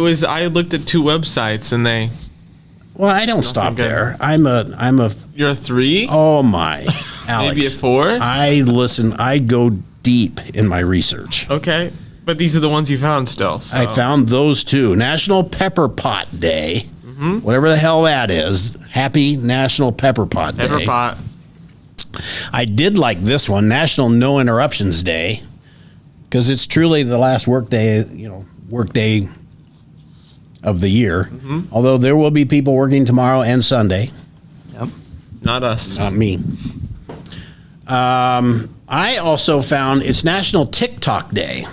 It was I looked at two websites and they Well, I don't stop think I- there. I'm a I'm a you're a three, oh my Alex. maybe a four. I listen. I go deep in my research. okay, but these are the ones you found still. So. I found those two National Pepper Pot Day, Mm-hmm. whatever the hell that is. Happy National Pepper Pot Day. Pepper pot. I did like this one, National No Interruptions Day, because it's truly the last workday, you know, workday of the year. Mm-hmm. Although there will be people working tomorrow and Sunday, Not us. not me. Um, I also found it's National TikTok Day.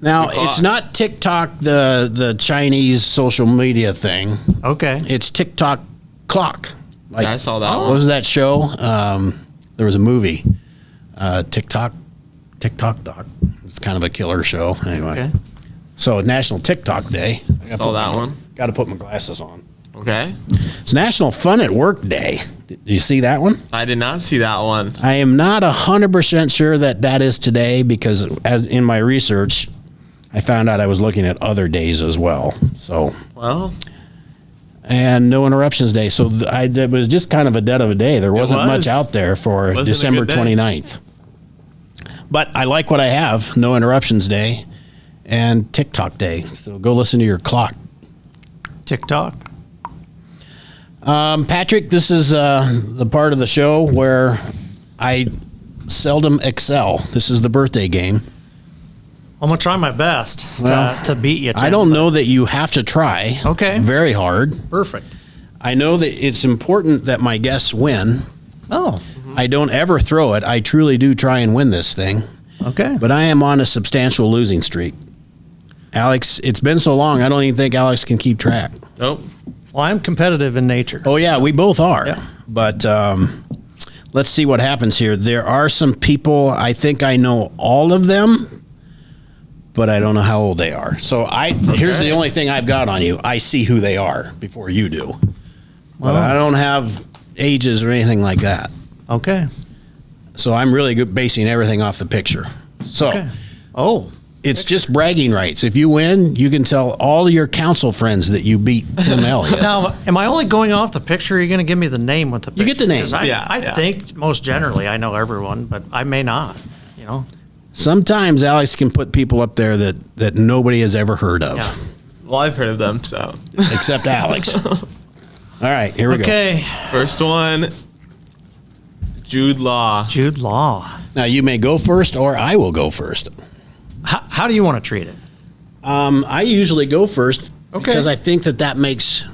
Now it's Clock. not TikTok the the Chinese social media thing. Okay. It's TikTok clock. Like oh, Yeah, I saw that What one. was that show? Um, there was a movie, uh, TikTok, TikTok Doc. It's kind of a killer show. Anyway, Okay. so National TikTok Day. I Saw that one. Got to put my glasses on. Okay, It's National Fun at Work Day. Did you see that one? I did not see that one. I am not hundred percent sure that that is today because, as in my research, I found out I was looking at other days as well. So Well, and no interruptions day. So th- I, it was just kind of a dead of a day. There wasn't much was. out there for Wasn't a December good day. 29th. But I like what I have no interruptions day and TikTok day. So go listen to your clock. TikTok. Um, Patrick, this is uh, the part of the show where I seldom excel. This is the birthday game. I'm gonna try my best to, Well, to beat you. I Tim, don't but- know that you have to try Okay. very hard. Perfect. I know that it's important that my guests win. Oh. I don't ever throw it. I truly do try and win this thing, Okay. but I am on a substantial losing streak. Alex, it's been so long, I don't even think Alex can keep track. nope. well, I'm competitive in nature. Oh, yeah, we both are. Yeah. But um, let's see what happens here. There are some people, I think I know all of them, but I don't know how old they are. So I here's the only thing I've got on you I see who they are before you do. But I don't have ages or anything like that. Okay. So I'm really good basing everything off the picture. So Okay. Oh. it's just bragging rights. If you win, you can tell all your council friends that you beat Tim Elliott. Now, am I only going off the picture? Or are you going to give me the name with the picture? You get the name. 'Cause I, Yeah, I yeah. think most generally I know everyone, but I may not. You know. Sometimes Alex can put people up there that, that nobody has ever heard of, Yeah. Well, I've heard of them. So except Alex. All right, here we Okay. first one, Jude Law. Jude Law. go. Now you may go first, or I will go first. How, how do you want to treat it? Um, I usually go first Okay. Uh, because I think that that makes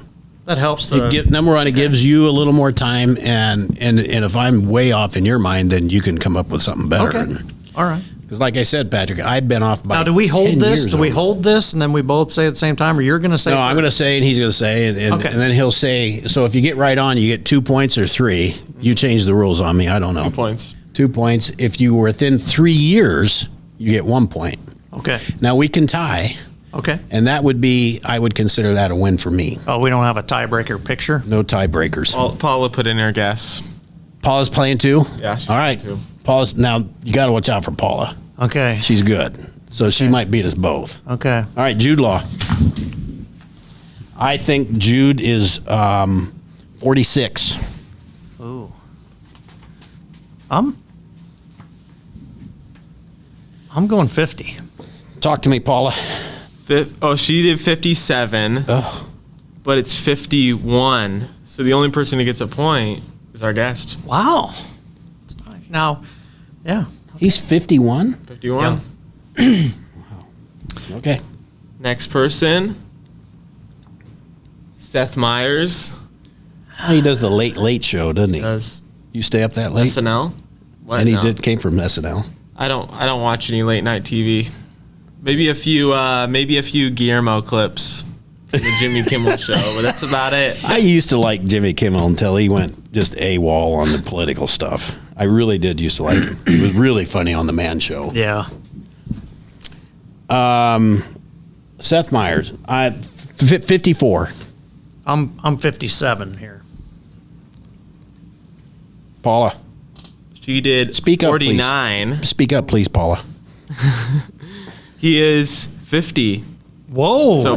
That helps the. give, number one. It gives you a little more time, and and and if I'm way off in your mind, then you can come up with something better. okay. All right. Because, like I said, Patrick, I've been off by. Now, do we 10 hold this? years Do we on- hold this, and then we both say at the same time, or you're going to say? No, I'm going to say, and he's going to say, and, and, Okay. and then he'll say. So if you get right on, you get two points or three. You change the rules on me. I don't know. Points. Two points. If you were within three years, you get one point. Okay. Now we can tie, Okay. and that would be. I would consider that a win for me. Oh, we don't have a tiebreaker picture. No tiebreakers. Paul, Paula put in her guess. Paul is playing too. Yes, All right. too. Paula's now. You got to watch out for Paula. Okay. She's good, so she might beat us both. Okay. All right, Jude Law. I think Jude is um, 46. Ooh. I'm. I'm going fifty. Talk to me, Paula. Fif- oh, she did 57, Oh, but it's 51. So the only person who gets a point is our guest. Wow. That's nice. Now, yeah. he's 51. 51. Yeah. Okay. Next person, Seth Meyers Well, he does the late late show, doesn't he? does You stay up that late, SNL. What? and he No. did came from SNL. I don't. I don't watch any late night TV. Maybe a few. Uh, maybe a few Guillermo clips. from The Jimmy Kimmel show, but that's about it. I used to like Jimmy Kimmel until he went just a wall on the political stuff. I really did used to like him. He was really funny on the Man Show. Yeah. Seth Meyers, I fi 54. I'm I'm 57 here. Paula, She did Speak up, please. 49. speak up, please, Paula. He is 50. Whoa. So